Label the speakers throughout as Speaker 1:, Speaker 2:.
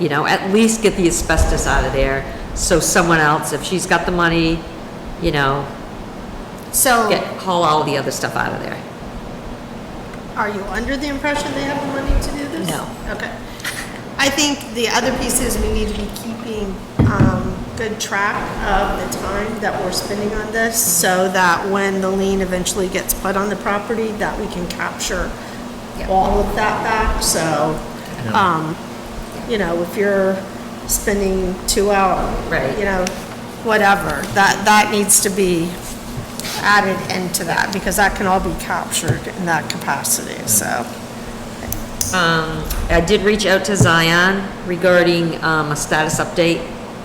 Speaker 1: you know, at least get the asbestos out of there, so someone else, if she's got the money, you know, get,
Speaker 2: So
Speaker 1: haul all the other stuff out of there.
Speaker 2: are you under the impression they have the money to do this?
Speaker 1: No.
Speaker 2: Okay. I think the other piece is we need to be keeping um, good track of the time that we're spending on this
Speaker 1: Mm-hmm.
Speaker 2: so that when the lien eventually gets put on the property, that we can capture
Speaker 1: Yeah.
Speaker 2: all of that back. So, um, you know, if you're spending two hours,
Speaker 1: Right.
Speaker 2: you know, whatever, that, that needs to be added into that because that can all be captured in that capacity, so.
Speaker 1: Um, I did reach out to Zion regarding, um, a status update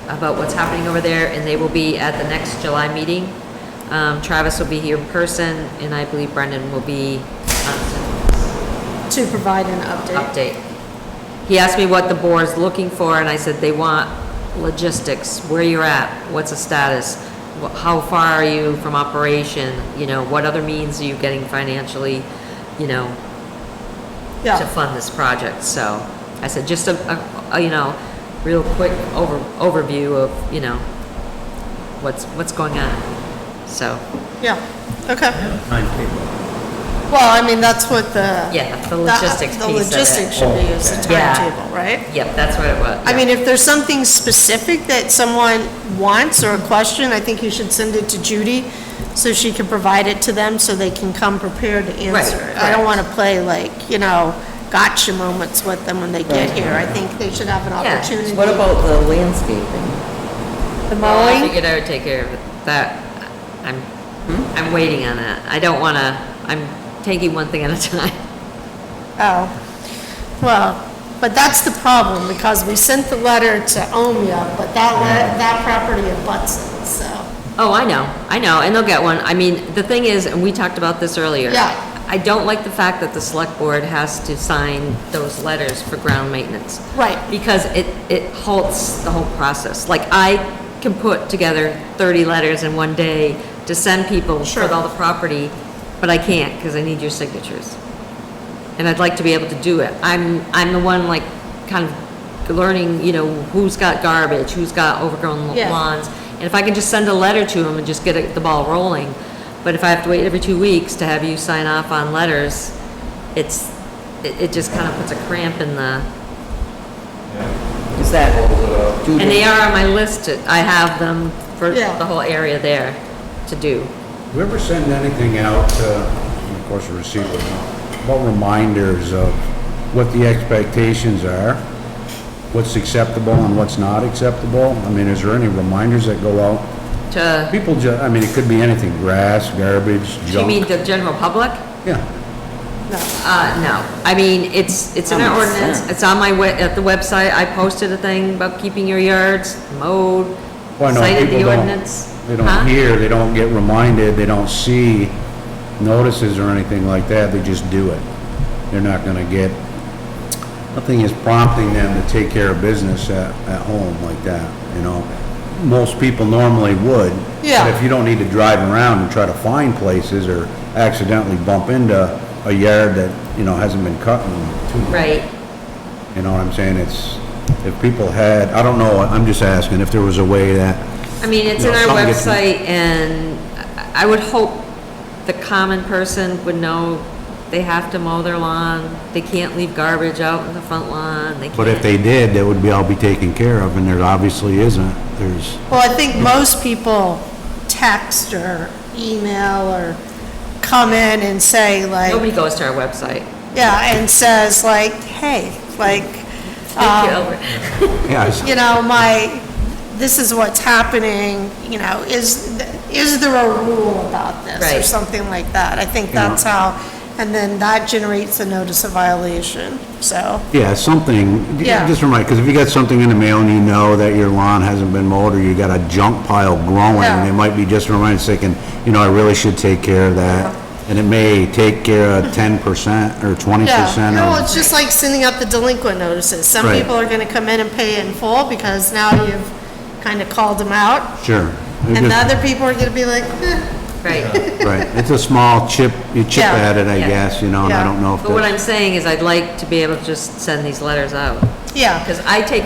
Speaker 1: about what's happening over there, and they will be at the next July meeting. Um, Travis will be here in person, and I believe Brendan will be uh, on
Speaker 2: To provide an
Speaker 1: Zoom
Speaker 2: update.
Speaker 1: update. He asked me what the board's looking for, and I said they want logistics, where you're at, what's the status, wh- how far are you from operation, you know, what other means are you getting financially, you know, to
Speaker 2: Yeah,
Speaker 1: fund this project, so I said, just a- a, a, you know, real quick over, overview of, you know, what's, what's going on, so,
Speaker 2: yeah, okay.
Speaker 3: timetable.
Speaker 2: Well, I mean, that's what the.
Speaker 1: yeah, the logistics
Speaker 2: The
Speaker 1: piece
Speaker 2: logistics
Speaker 1: of it.
Speaker 2: should be is the
Speaker 1: Oh, okay. Yeah.
Speaker 2: timetable, right?
Speaker 1: Yep, that's what it was.
Speaker 2: I mean, if there's something specific that someone wants or a question, I think you should send it to Judy so she can provide it to them so they can come prepared to answer. it. I don't
Speaker 1: right.
Speaker 2: want to play like, you know, gotcha moments with them when they get here. I think they should have an
Speaker 1: Yeah.
Speaker 2: opportunity.
Speaker 4: What about the landscaping?
Speaker 2: The
Speaker 1: Well, I
Speaker 2: mowing?
Speaker 1: figured I would take care of that, I'm, I'm waiting on that, I don't wanna, I'm taking one thing at a time.
Speaker 2: Oh, well, but that's the problem because we sent the letter to Omea, but that, le- that property abuts it, so.
Speaker 1: Oh, I know, I know, and they'll get one, I mean, the thing is, and we talked about this earlier.
Speaker 2: Yeah.
Speaker 1: I don't like the fact that the select board has to sign those letters for ground maintenance.
Speaker 2: Right.
Speaker 1: Because it, it halts the whole process. Like, I can put together 30 letters in one day to send people for
Speaker 2: Sure.
Speaker 1: all the property, but I can't because I need your signatures. And I'd like to be able to do it. I'm, I'm the one like kind of learning, you know, who's got garbage, who's got overgrown
Speaker 2: Yeah.
Speaker 1: lawns. And if I can just send a letter to them and just get it- the ball rolling. But if I have to wait every two weeks to have you sign off on letters, it's, it, it just kind of puts a cramp in the,
Speaker 4: Is that due
Speaker 1: and they
Speaker 4: to,
Speaker 1: are on my list. to- I have them for
Speaker 2: Yeah.
Speaker 1: the whole area there to do.
Speaker 3: Do you ever send anything out, uh, of course, a receipt, would know, about reminders of what the expectations are? What's acceptable and what's not acceptable? I mean, is there any reminders that go out?
Speaker 1: To,
Speaker 3: People ju, I mean, it could be anything, grass, garbage,
Speaker 1: do you mean
Speaker 3: junk.
Speaker 1: the general public?
Speaker 3: Yeah,
Speaker 1: Uh, no, I mean, it's, it's in
Speaker 4: Oh,
Speaker 1: our
Speaker 4: it's
Speaker 1: ordinance,
Speaker 4: there.
Speaker 1: it's on my, we- at the website, I posted a thing about keeping your yards mowed,
Speaker 3: well, I know
Speaker 1: cited
Speaker 3: people
Speaker 1: the
Speaker 3: don't,
Speaker 1: ordinance.
Speaker 3: they don't
Speaker 1: Huh?
Speaker 3: hear, they don't get reminded, they don't see notices or anything like that, they just do it. They're not gonna get, nothing is prompting them to take care of business at, at home like that, you know? Most people normally would.
Speaker 2: Yeah.
Speaker 3: But if you don't need to drive around and try to find places or accidentally bump into a yard that, you know, hasn't been cut in two
Speaker 1: Right,
Speaker 3: you know what I'm saying? It's, if people had, I don't know, I'm just asking if there was a way that,
Speaker 1: I mean, it's in
Speaker 3: No,
Speaker 1: our
Speaker 3: something gets-
Speaker 1: website, and I I would hope the common person would know they have to mow their lawn, they can't leave garbage out in the front lawn, they can't.
Speaker 3: but if they did, that would be, all be taken care of, and there obviously isn't. There's,
Speaker 2: Well, I think most people text or email or come in and say
Speaker 1: Nobody
Speaker 2: like,
Speaker 1: goes to our website.
Speaker 2: yeah, and says like, hey, like,
Speaker 1: Thank you, Albert.
Speaker 3: yeah, it's-
Speaker 2: you know, my, this is what's happening, you know, is, is there a rule about this? Or
Speaker 1: Right.
Speaker 2: something like that. I think that's how, and then that generates a notice of violation, so.
Speaker 3: yeah, something,
Speaker 2: Yeah.
Speaker 3: just remind, because if you got something in the mail and you know that your lawn hasn't been mowed, or you got a junk pile growing,
Speaker 2: Yeah.
Speaker 3: it might be just a reminder, saying, you know, I really should take care of that, and it may take care of ten percent or twenty
Speaker 2: Yeah,
Speaker 3: percent
Speaker 2: no,
Speaker 3: of,
Speaker 2: it's just like sending out the delinquent notices. Some
Speaker 3: Right.
Speaker 2: people are gonna come in and pay in full because now you've kind of called them out.
Speaker 3: sure.
Speaker 2: And
Speaker 3: It
Speaker 2: the
Speaker 3: just-
Speaker 2: other people are gonna be like, eh,
Speaker 1: Right.
Speaker 3: Right, it's a small chip, you chip
Speaker 2: Yeah.
Speaker 3: at it, I
Speaker 1: Yeah.
Speaker 3: guess, you know, and I
Speaker 2: Yeah.
Speaker 3: don't know if
Speaker 1: But what
Speaker 3: that's...
Speaker 1: I'm saying is I'd like to be able to just send these letters out,
Speaker 2: yeah.
Speaker 1: because I take